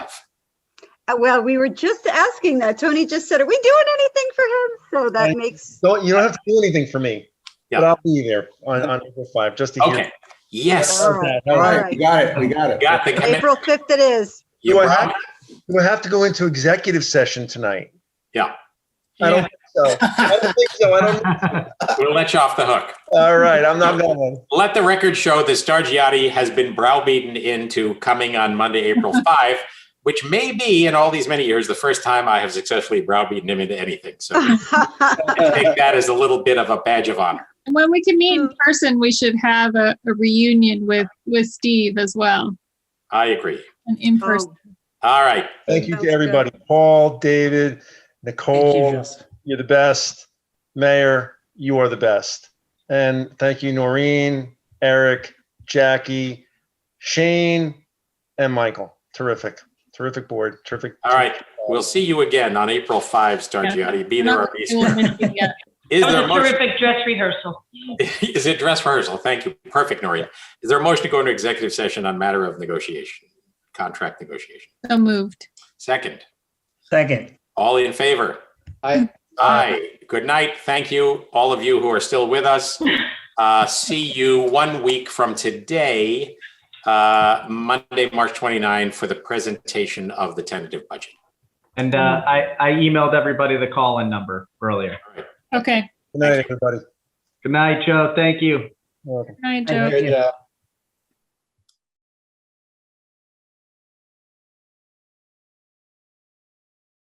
Uh, Well, we were just asking that. Tony just said, are we doing anything for him? So that Right. makes, Don't, you don't have to do anything for me. But Yeah. I'll be there on, on April five, just to hear. Okay. Yes. Oh, Okay, All all right. right, we got it, we got it. Got the commitment. April 5th it is. You Do I brought have- it. Do I have to go into executive session tonight? I don't Yeah, think so. I don't think so. I don't, We'll let you off the hook. all right, I'm not going. Let the record show that Stargiotti has been browbeaten into coming on Monday, April 5, which may be in all these many years the first time I have successfully browbeaten him into anything. So I take that as a little bit of a badge of honor. And when we can meet in Mm. person, we should have a, a reunion with, with Steve as well, I agree. an in-person. Oh, All right. Thank you Sounds to good. everybody. Paul, David, Nicole, you're the best. Mayor, you are the best. And thank you, Noreen, Eric, Jackie, Shane, and Michael. Terrific, terrific board, terrific. All right. We'll see you again on April 5, Stargiotti. Be there or be We'll square. meet again. Is That there a was a motion? terrific dress rehearsal. Is it dress rehearsal? Thank you. Perfect, Noreen. Is there a motion to go into executive session on matter of negotiation, contract negotiation? So moved. Second, Second. all in favor? Aye. Aye. Good night. Thank you, all of you who are still with us. Uh, See you one week from today, uh, Monday, March 29, for the presentation of the tentative budget. And uh, I, I emailed everybody the call-in number earlier. Okay. Good night, everybody. Good night, Joe. Thank you. Good night, Joe. Good, uh,